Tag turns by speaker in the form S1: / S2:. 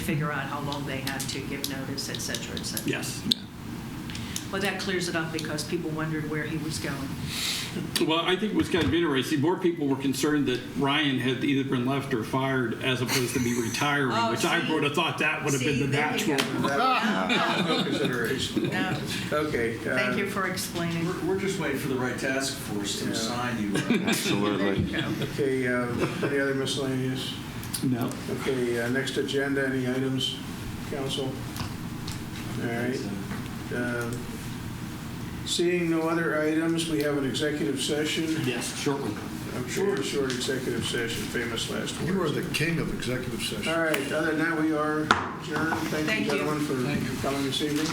S1: figure out how long they have to give notice, et cetera, et cetera.
S2: Yes.
S1: Well, that clears it up because people wondered where he was going.
S2: Well, I think it was kind of interesting. More people were concerned that Ryan had either been left or fired as opposed to be retiring,
S1: Oh,
S2: which I
S1: see.
S2: would have thought that would have
S1: See,
S2: been the
S1: there you
S2: natural.
S1: go.
S3: That was No consideration.
S1: No.
S3: Okay. uh,
S1: Thank you for explaining.
S4: We're, we're just waiting for the right task force to
S3: Yeah.
S4: assign you.
S1: There
S5: Absolutely.
S1: you go.
S3: Okay, uh, any other miscellaneous?
S2: No.
S3: Okay, uh, next agenda, any items, council? All right. uh, Seeing no other items, we have an executive session.
S2: Yes, short one.
S3: I'm sure a short executive session, famous last words.
S6: You are the king of executive session.
S3: All right, other than that, we are adjourned. Thank
S1: Thank
S3: you,
S1: you.
S3: gentlemen, for coming this evening.